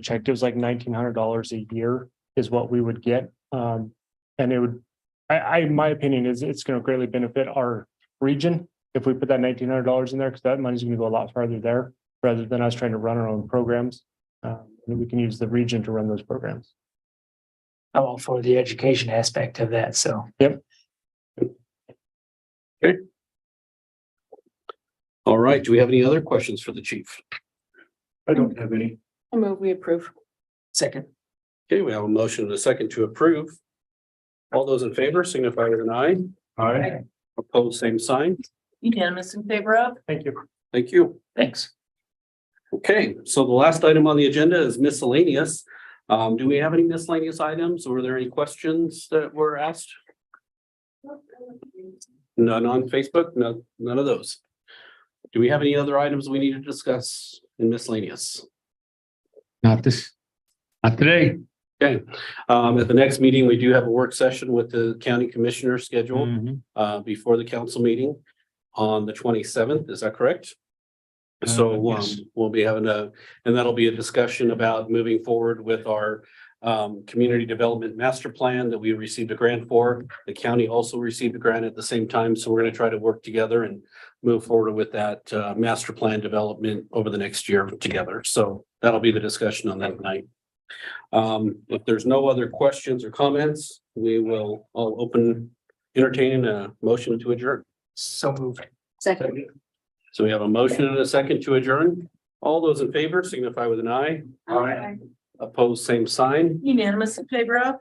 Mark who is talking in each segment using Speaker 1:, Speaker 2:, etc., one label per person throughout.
Speaker 1: checked, it was like nineteen hundred dollars a year is what we would get. Um, and it would, I, I, my opinion is it's gonna greatly benefit our region if we put that nineteen hundred dollars in there, because that money's gonna go a lot farther there rather than us trying to run our own programs. Um, and we can use the region to run those programs.
Speaker 2: I'm all for the education aspect of that, so.
Speaker 3: All right, do we have any other questions for the chief?
Speaker 4: I don't have any.
Speaker 5: I move we approve.
Speaker 2: Second.
Speaker 3: Okay, we have a motion and a second to approve. All those in favor signify with an eye.
Speaker 4: Aye.
Speaker 3: Opposed, same sign.
Speaker 5: Unanimous in favor of?
Speaker 1: Thank you.
Speaker 3: Thank you.
Speaker 2: Thanks.
Speaker 3: Okay, so the last item on the agenda is miscellaneous. Um, do we have any miscellaneous items? Were there any questions that were asked? None on Facebook, no, none of those. Do we have any other items we need to discuss in miscellaneous?
Speaker 4: Not this, not today.
Speaker 3: Okay, um, at the next meeting, we do have a work session with the county commissioner scheduled,
Speaker 1: Mm-hmm.
Speaker 3: uh, before the council meeting on the twenty-seventh, is that correct? So,
Speaker 4: Uh,
Speaker 3: um,
Speaker 4: yes.
Speaker 3: we'll be having a, and that'll be a discussion about moving forward with our um, community development master plan that we received a grant for. The county also received a grant at the same time, so we're gonna try to work together and move forward with that, uh, master plan development over the next year together. So that'll be the discussion on that night. Um, if there's no other questions or comments, we will, I'll open, entertain a motion to adjourn.
Speaker 2: So moved.
Speaker 5: Second.
Speaker 3: So we have a motion and a second to adjourn. All those in favor signify with an eye. Opposed, same sign,
Speaker 5: Unanimous in favor of?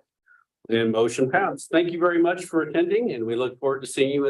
Speaker 3: and motion passed. Thank you very much for attending, and we look forward to seeing you at